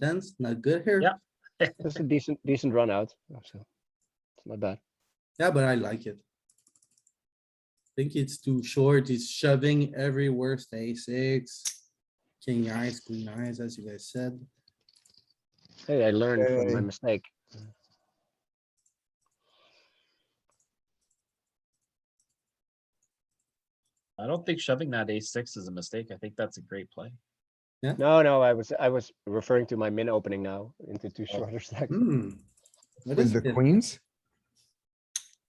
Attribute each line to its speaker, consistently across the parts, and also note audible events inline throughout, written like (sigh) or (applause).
Speaker 1: sense, not good here.
Speaker 2: Yeah.
Speaker 3: That's a decent, decent run out. So it's not bad.
Speaker 1: Yeah, but I like it. Think it's too short, he's shoving every worst ace six, king eyes, queen eyes, as you guys said.
Speaker 3: Hey, I learned from my
Speaker 4: Okay.
Speaker 3: mistake.
Speaker 2: I don't think shoving that ace six is a mistake. I think that's a great play.
Speaker 3: No, no, I was, I was referring to my min opening now into two shorter stacks.
Speaker 1: Hmm. What
Speaker 4: with
Speaker 1: is
Speaker 4: the
Speaker 1: it?
Speaker 4: queens.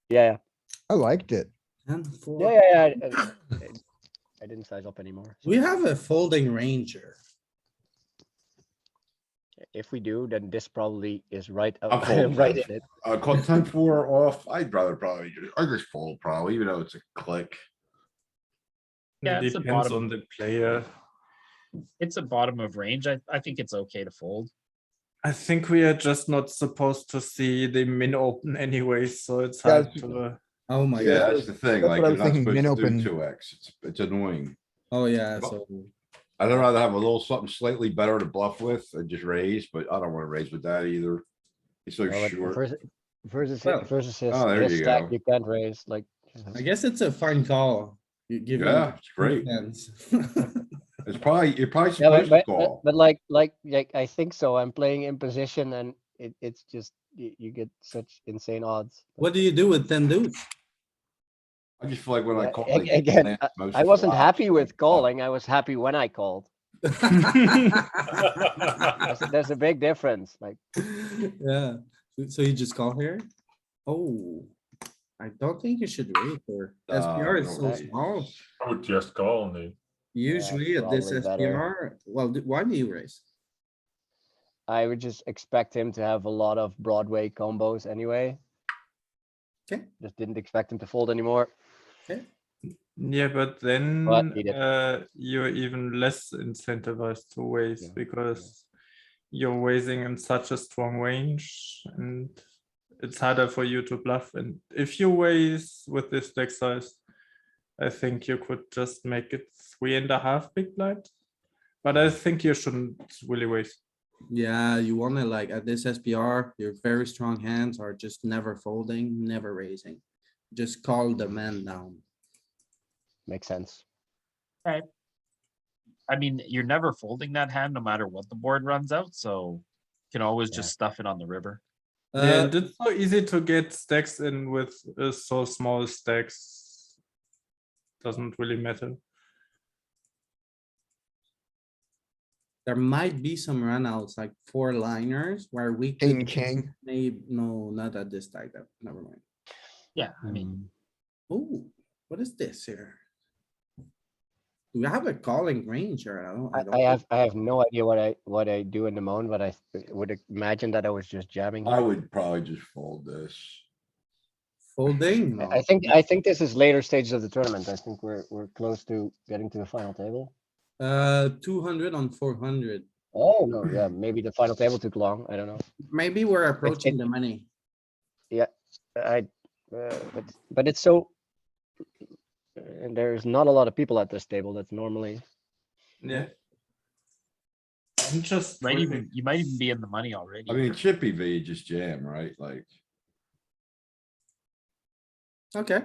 Speaker 3: Yeah,
Speaker 4: I liked it.
Speaker 1: Ten,
Speaker 3: yeah,
Speaker 1: four?
Speaker 3: yeah, yeah, yeah. I- I- I didn't size up anymore.
Speaker 1: We have a folding ranger.
Speaker 3: If we do, then this probably is right, up-
Speaker 5: I'm
Speaker 3: (laughs)
Speaker 5: folding.
Speaker 3: right in it.
Speaker 5: Uh, call ten four off. I'd rather probably, ju- I just fold probably, even though it's a click.
Speaker 2: Yeah, it's the
Speaker 6: Depends
Speaker 2: bottom.
Speaker 6: on the player.
Speaker 2: It's a bottom of range. I, I think it's okay to
Speaker 3: (laughs)
Speaker 2: fold.
Speaker 6: I think we are just not supposed to see the min open (laughs) anyway, so it's
Speaker 4: Yeah,
Speaker 6: hard
Speaker 4: it's-
Speaker 6: to.
Speaker 1: Oh my
Speaker 5: Yeah,
Speaker 1: god.
Speaker 5: that's the thing,
Speaker 4: that's what I
Speaker 5: like, you're
Speaker 4: was
Speaker 5: not
Speaker 4: thinking,
Speaker 5: supposed to
Speaker 4: min-open.
Speaker 5: do two X. It's, it's annoying.
Speaker 1: Oh, yeah, so
Speaker 5: I'd rather have a little something slightly better to bluff with and just raise, but I don't wanna raise with that either. It's so
Speaker 3: No, but
Speaker 5: short.
Speaker 3: vers- Versus,
Speaker 1: Well,
Speaker 3: his- versus his,
Speaker 5: oh, there
Speaker 3: this
Speaker 5: you
Speaker 3: stack,
Speaker 5: go.
Speaker 3: you can't raise, like.
Speaker 1: I guess it's a fine call. You give
Speaker 5: Yeah,
Speaker 1: him.
Speaker 5: it's great.
Speaker 1: tens.
Speaker 5: It's probably, you're probably
Speaker 3: Yeah, but,
Speaker 5: supposed
Speaker 3: but,
Speaker 5: to
Speaker 3: but,
Speaker 5: call.
Speaker 3: but like, like, like, I think so. I'm playing in position and it, it's just, you, you get such insane odds.
Speaker 1: (laughs) What do you do with ten deuce?
Speaker 5: I just feel like when I
Speaker 3: Yeah,
Speaker 5: call.
Speaker 3: ag-
Speaker 5: like,
Speaker 3: again,
Speaker 5: man, most of
Speaker 3: I
Speaker 5: the
Speaker 3: wasn't
Speaker 5: lot,
Speaker 3: happy with
Speaker 5: Oh.
Speaker 3: calling. I was happy when I called. There's, there's a big difference, like,
Speaker 1: Yeah, so- so you just call here? Oh, I don't think you should raise here.
Speaker 5: uh,
Speaker 1: SPR is
Speaker 5: no,
Speaker 1: so
Speaker 5: it's-
Speaker 1: small.
Speaker 7: I would just call on it.
Speaker 1: Usually at this
Speaker 3: probably better.
Speaker 1: SPR, well, d- why do you raise?
Speaker 3: I would just expect him to have a lot of Broadway combos anyway.
Speaker 1: Okay.
Speaker 3: Just didn't expect him to fold anymore.
Speaker 6: Yeah, but then
Speaker 3: But we did-
Speaker 6: uh, you're even less incentivized to raise
Speaker 3: Yeah, yeah.
Speaker 6: because you're raising in such a strong range and it's harder for you to bluff. And if you raise with this deck size, I think you could just make it three and a half big blind. But I think you shouldn't really raise.
Speaker 1: Yeah, you wanna like at this SPR, your very strong hands are just never folding, never raising. Just call the man down.
Speaker 3: Makes sense.
Speaker 2: I mean, you're never folding that hand, no matter what the board runs out, so you can always just stuff it on the river.
Speaker 6: yeah,
Speaker 1: Uh,
Speaker 6: and it's so easy to get stacks in with uh, so small stacks. Doesn't really matter.
Speaker 1: there might be some runouts, like four liners where we. could
Speaker 4: King, king.
Speaker 1: Maybe, no, not at this stack, that, never mind.
Speaker 2: Yeah, I mean,
Speaker 1: Oh, what is this here? Do we have a calling range here? I don't, I
Speaker 3: I,
Speaker 1: don't.
Speaker 3: I have, I have no idea what I, what I do in the moment, but I th- would imagine that I was just jamming.
Speaker 5: I
Speaker 3: here.
Speaker 5: would probably just fold this.
Speaker 1: Folding,
Speaker 3: I-
Speaker 1: no.
Speaker 3: I think, I think this is later stages of the tournament. I think we're, we're close to getting to the final table.
Speaker 1: uh, two hundred on four hundred.
Speaker 3: Oh, no, yeah, maybe the final table took long. I don't know.
Speaker 1: Maybe we're approaching the money.
Speaker 3: I, uh, but, but it's so. And there's not a lot of people at this table that's normally,
Speaker 6: Yeah.
Speaker 3: Mm-hmm.
Speaker 6: I'm just
Speaker 2: might even,
Speaker 6: waiting.
Speaker 2: you might even be in the money already.
Speaker 5: I mean, chippy V, you just jam, right? Like,
Speaker 1: Okay,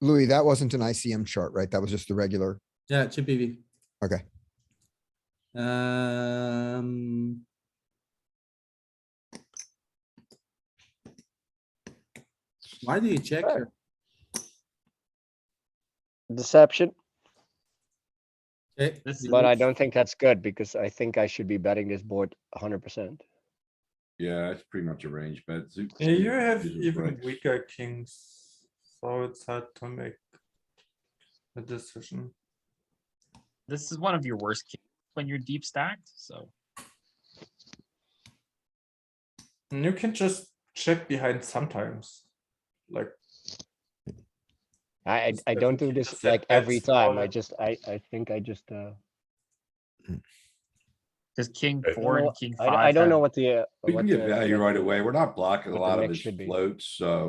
Speaker 4: Louis, that wasn't an ICM chart, right? That was just the regular.
Speaker 1: yeah, chippy V.
Speaker 4: Okay.
Speaker 1: Um. Why do you check
Speaker 3: Sure.
Speaker 1: here?
Speaker 3: deception,
Speaker 1: Okay,
Speaker 2: This is-
Speaker 3: but I don't think that's good because I think I should be betting this board hundred percent.
Speaker 5: yeah, it's pretty much a range bet. Zoot
Speaker 6: Yeah, you
Speaker 5: suit,
Speaker 6: have
Speaker 5: these are
Speaker 6: even
Speaker 5: breaks.
Speaker 6: weaker kings, so it's hard to make a decision.
Speaker 2: This is one of your worst kings when you're deep stacked, so.
Speaker 6: And you can just check behind sometimes. Like,
Speaker 3: I, I,
Speaker 6: Just
Speaker 3: I don't do
Speaker 6: definitely
Speaker 3: this
Speaker 6: just
Speaker 3: like every
Speaker 6: setbacks for
Speaker 3: time. I
Speaker 6: it.
Speaker 3: just, I, I think I just, uh,
Speaker 2: Cause king
Speaker 7: I don't
Speaker 2: four
Speaker 3: know-
Speaker 2: and king
Speaker 3: I,
Speaker 2: five.
Speaker 3: I don't know
Speaker 2: have-
Speaker 3: what the. uh,
Speaker 5: We can
Speaker 3: what
Speaker 5: get
Speaker 3: the-
Speaker 5: value right away. We're not blocking a
Speaker 3: what the
Speaker 5: lot of
Speaker 3: mix
Speaker 5: his
Speaker 3: should be.
Speaker 5: floats, so.